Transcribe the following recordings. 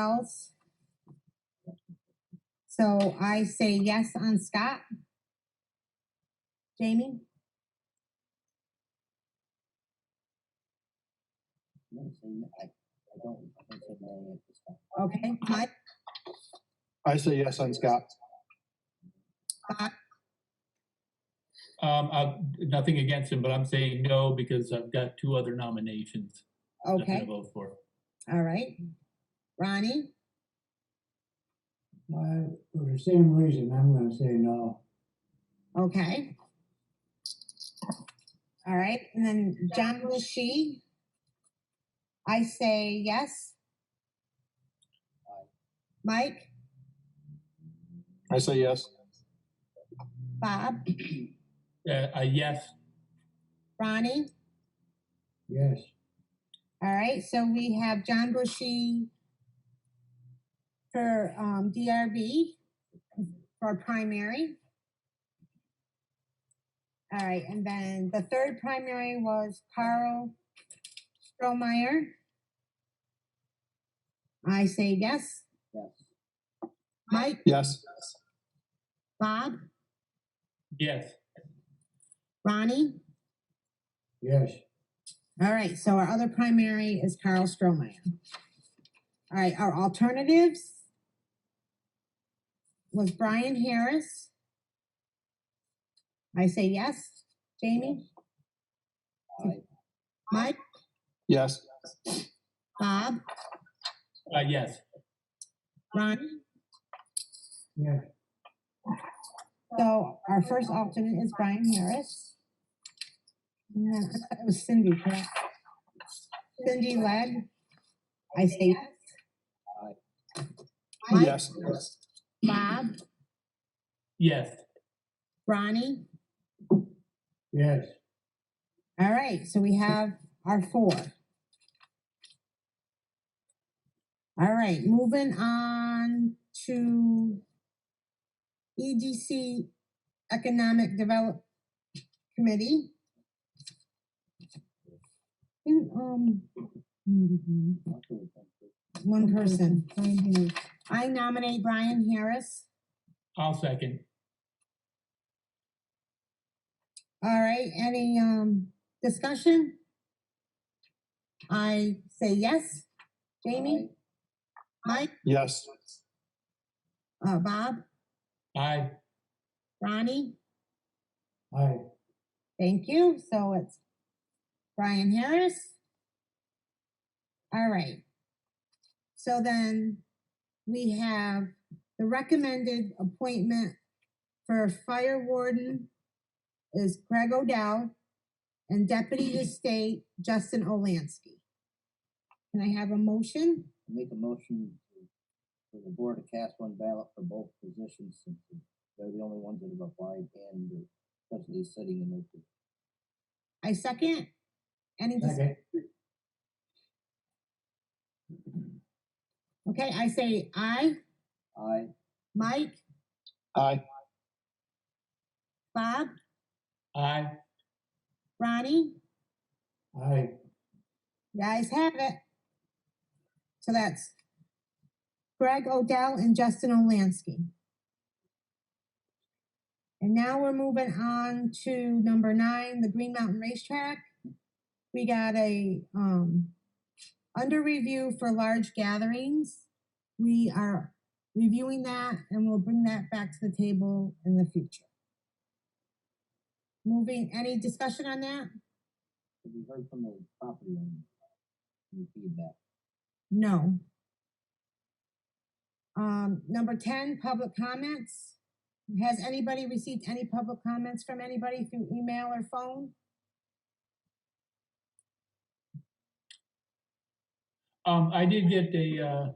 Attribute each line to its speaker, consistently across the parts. Speaker 1: Wells. So I say yes on Scott. Jamie?
Speaker 2: I'm gonna say no- I, I don't, I'm gonna say no at this time.
Speaker 1: Okay, Mike,
Speaker 3: I say yes on Scott.
Speaker 4: Um, I've, nothing against him, but I'm saying no because I've got two other nominations. that I'm gonna
Speaker 1: okay,
Speaker 4: Vote for.
Speaker 1: all right. Ronnie,
Speaker 5: Uh, for the same reason, I'm gonna say no.
Speaker 1: okay. All right, and then John Lucy. I say yes. Mike,
Speaker 3: I say yes.
Speaker 1: Bob,
Speaker 4: Uh, uh, yes,
Speaker 1: Ronnie?
Speaker 5: Yes,
Speaker 1: All right, so we have John Bushy for um DRB for primary. All right, and then the third primary was Carl Strohmeyer. I say yes.
Speaker 2: Yes,
Speaker 1: Mike,
Speaker 3: Yes.
Speaker 1: Bob,
Speaker 4: yes,
Speaker 1: Ronnie?
Speaker 5: yes,
Speaker 1: All right, so our other primary is Carl Strohmeyer. All right, our alternatives was Brian Harris. I say yes. Jamie?
Speaker 2: I,
Speaker 1: Mike?
Speaker 3: Yes.
Speaker 1: Bob?
Speaker 4: uh, yes,
Speaker 1: Ronnie?
Speaker 5: yes,
Speaker 1: So our first alternate is Brian Harris. And then I thought it was Cindy, correct? Cindy led. I say yes. Mike?
Speaker 3: Yes.
Speaker 1: Bob?
Speaker 4: yes,
Speaker 1: Ronnie?
Speaker 5: yes,
Speaker 1: All right, so we have our four. All right, moving on to EDC Economic Develop Committee. And, um, mhm,
Speaker 2: I'm gonna say no.
Speaker 1: one person, Brian Harris. I nominate Brian Harris.
Speaker 4: I'll second.
Speaker 1: All right, any, um, discussion? I say yes. Jamie? Mike?
Speaker 3: Yes.
Speaker 1: Uh, Bob,
Speaker 4: I,
Speaker 1: Ronnie,
Speaker 5: I,
Speaker 1: thank you. So it's Brian Harris. All right. So then we have the recommended appointment for fire warden is Craig Odell and deputy to state Justin Olansky. Can I have a motion?
Speaker 2: I make a motion to- for the board to cast one ballot for both positions since they're the only ones that have applied and they're especially sitting in those.
Speaker 1: I second. Any, dis-
Speaker 5: second,
Speaker 1: okay, I say aye.
Speaker 2: I,
Speaker 1: Mike,
Speaker 3: I.
Speaker 1: Bob,
Speaker 4: I,
Speaker 1: Ronnie?
Speaker 5: I,
Speaker 1: You Guys have it. So that's Greg Odell and Justin Olansky. And now we're moving on to number nine, the Green Mountain Racetrack. We got a, um, under review for large gatherings. We are reviewing that and we'll bring that back to the table in the future. Moving, any discussion on that?
Speaker 2: have you heard from the property owner? Any feedback?
Speaker 1: No. Um, number ten, public comments. Has anybody received any public comments from anybody through email or phone?
Speaker 4: um, I did get a, uh,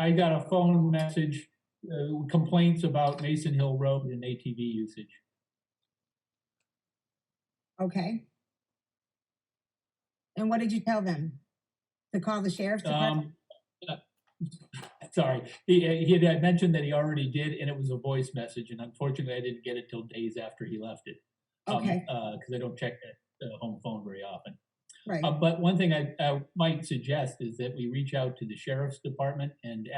Speaker 4: I got a phone message, uh, complaints about Mason Hill Road and ATV usage.
Speaker 1: Okay. And what did you tell them? To call the sheriff's department?
Speaker 4: Um, uh, sorry, he, uh, he had- had mentioned that he already did, and it was a voice message, and unfortunately, I didn't get it till days after he left it. Um,
Speaker 1: Okay.
Speaker 4: Uh, because I don't check the, the home phone very often.
Speaker 1: Right.
Speaker 4: Uh, but one thing I, I might suggest is that we reach out to the sheriff's department and